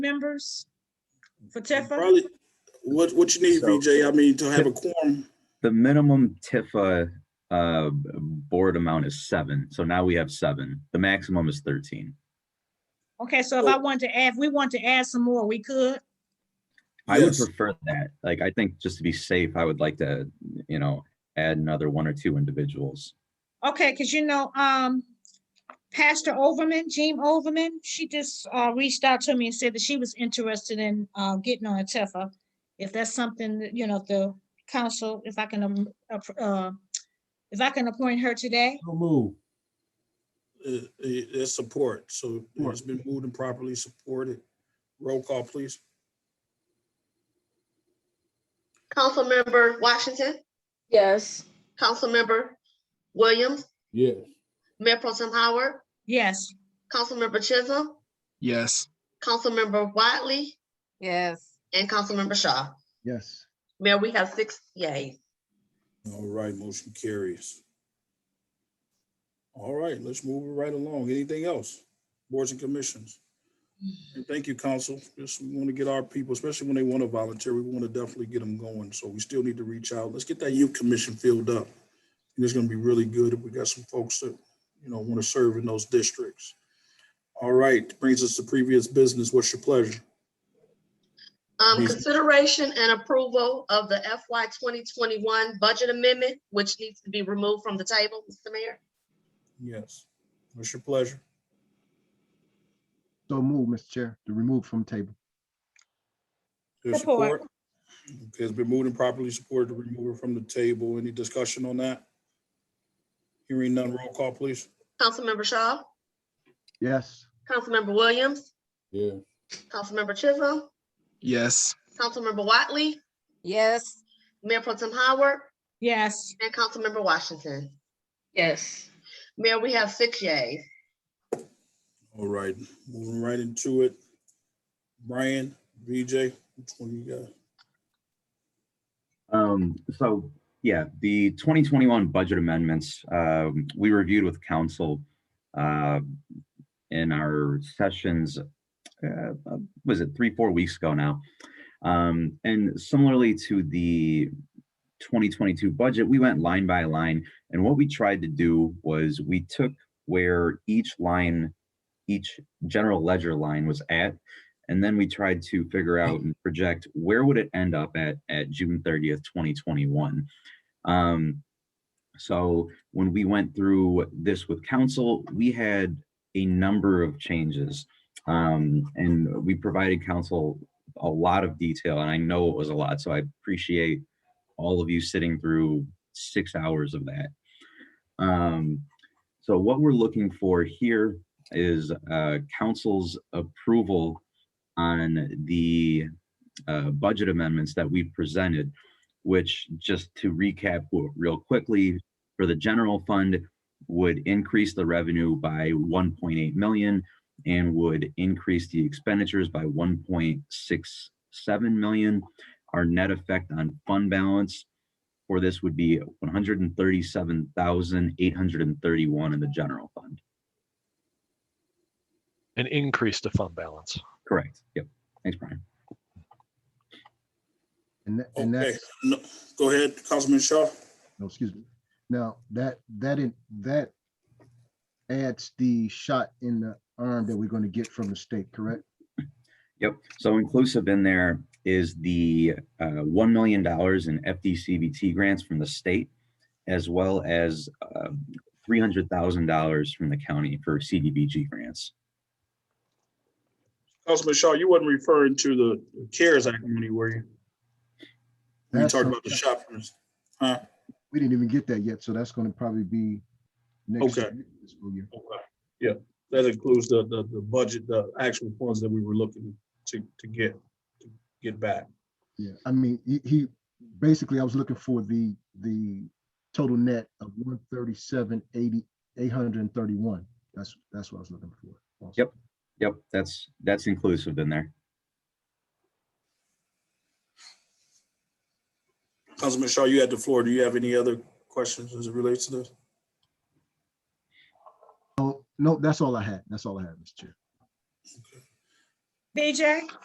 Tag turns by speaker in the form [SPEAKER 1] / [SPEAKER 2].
[SPEAKER 1] members for TIFA?
[SPEAKER 2] Probably, what, what you need,
[SPEAKER 3] So-
[SPEAKER 2] VJ, I mean, to have a quorum,
[SPEAKER 3] The minimum Tifa uh, board amount is seven, so now we have seven. The maximum is 13.
[SPEAKER 1] Okay, so if I wanted to add, if we want to add some more, we could.
[SPEAKER 3] I would
[SPEAKER 2] Yes.
[SPEAKER 3] prefer that. Like, I think just to be safe, I would like to, you know, add another one or two individuals.
[SPEAKER 1] Okay, because you know, um, Pastor Overman, Jean Overman, she just, uh, reached out to me and said that she was interested in, uh, getting on a TIFA. If that's something, that, you know, if the council, if I can, um, appro- uh, if I can appoint her today,
[SPEAKER 4] So move.
[SPEAKER 2] uh, uh, is support. So it's been moved and properly supported. Roll call, please.
[SPEAKER 5] Councilmember Washington,
[SPEAKER 6] Yes.
[SPEAKER 5] Councilmember Williams,
[SPEAKER 4] Yes.
[SPEAKER 5] Mayor Pro Tem Howard,
[SPEAKER 1] yes.
[SPEAKER 5] Councilmember Chisholm,
[SPEAKER 7] yes,
[SPEAKER 5] Councilmember Wiley,
[SPEAKER 6] Yes.
[SPEAKER 5] and Councilmember Shaw.
[SPEAKER 4] Yes.
[SPEAKER 5] Mayor, we have six yays.
[SPEAKER 2] All right, motion carries. All right, let's move it right along. Anything else? Boards and commissions. And thank you, council. Just we want to get our people, especially when they want to volunteer, we want to definitely get them going. So we still need to reach out. Let's get that youth commission filled up. And it's going to be really good if we got some folks that, you know, want to serve in those districts. All right, brings us to previous business. What's your pleasure?
[SPEAKER 5] Um,
[SPEAKER 2] Yes.
[SPEAKER 5] consideration and approval of the FY twenty twenty-one budget amendment, which needs to be removed from the table, Mr. Mayor.
[SPEAKER 2] Yes. What's your pleasure?
[SPEAKER 4] So move, Mr. Chair, to remove from table.
[SPEAKER 2] There's
[SPEAKER 1] Support.
[SPEAKER 2] Okay, It's been moved and properly supported to remove it from the table. Any discussion on that? Hearing none, roll call, please.
[SPEAKER 5] Councilmember Shaw,
[SPEAKER 4] Yes.
[SPEAKER 5] Councilmember Williams,
[SPEAKER 4] Yeah.
[SPEAKER 5] Councilmember Chisholm,
[SPEAKER 7] yes,
[SPEAKER 5] Councilmember Wiley,
[SPEAKER 6] Yes.
[SPEAKER 5] Mayor Pro Tem Howard,
[SPEAKER 1] Yes,
[SPEAKER 5] and Councilmember Washington.
[SPEAKER 6] Yes.
[SPEAKER 5] Mayor, we have six yays.
[SPEAKER 2] All right, moving right into it. Brian, VJ, which one you got?
[SPEAKER 3] Um, so, yeah, the 2021 budget amendments, um, we reviewed with council, uh, in our sessions, uh, was it three, four weeks ago now? Um, and similarly to the 2022 budget, we went line by line. And what we tried to do was we took where each line, each general ledger line was at, and then we tried to figure out and project where would it end up at at June 30th, 2021. Um, so when we went through this with council, we had a number of changes. Um, and we provided council a lot of detail, and I know it was a lot, so I appreciate all of you sitting through six hours of that. Um, so what we're looking for here is uh, council's approval on the uh, budget amendments that we presented, which just to recap w- real quickly, for the general fund would increase the revenue by 1.8 million and would increase the expenditures by 1.67 million. Our net effect on fund balance for this would be 137,831 in the general fund.
[SPEAKER 8] and increase the fund balance.
[SPEAKER 3] Correct. Yep. Thanks, Brian.
[SPEAKER 9] And that, and
[SPEAKER 2] Okay,
[SPEAKER 9] that's,
[SPEAKER 2] no, go ahead, Councilman Shaw.
[SPEAKER 9] no, excuse me. Now, that, that, in- that adds the shot in the arm that we're going to get from the state, correct?
[SPEAKER 3] Yep, so inclusive in there is the uh, $1 million in FDCVT grants from the state, as well as uh, $300,000 from the county for CDBG grants.
[SPEAKER 2] Councilman Shaw, you wasn't referring to the CARES Act money, were you? We
[SPEAKER 9] That's
[SPEAKER 2] talked
[SPEAKER 9] some-
[SPEAKER 2] about the shoppers. Huh?
[SPEAKER 9] We didn't even get that yet, so that's going to probably be next
[SPEAKER 2] Okay.
[SPEAKER 9] fiscal year.
[SPEAKER 2] Okay, Yeah, that includes the, the, the budget, the actual funds that we were looking to, to get, to get back.
[SPEAKER 9] Yeah, I mean, he, he, basically, I was looking for the, the total net of one thirty-seven, eighty, eight hundred and thirty-one. That's, that's what I was looking for. also.
[SPEAKER 3] Yep. Yep, that's, that's inclusive in there.
[SPEAKER 2] Councilman Shaw, you had the floor. Do you have any other questions as it relates to this?
[SPEAKER 9] Oh, no, that's all I had. That's all I had, Mr. Chair.
[SPEAKER 1] BJ?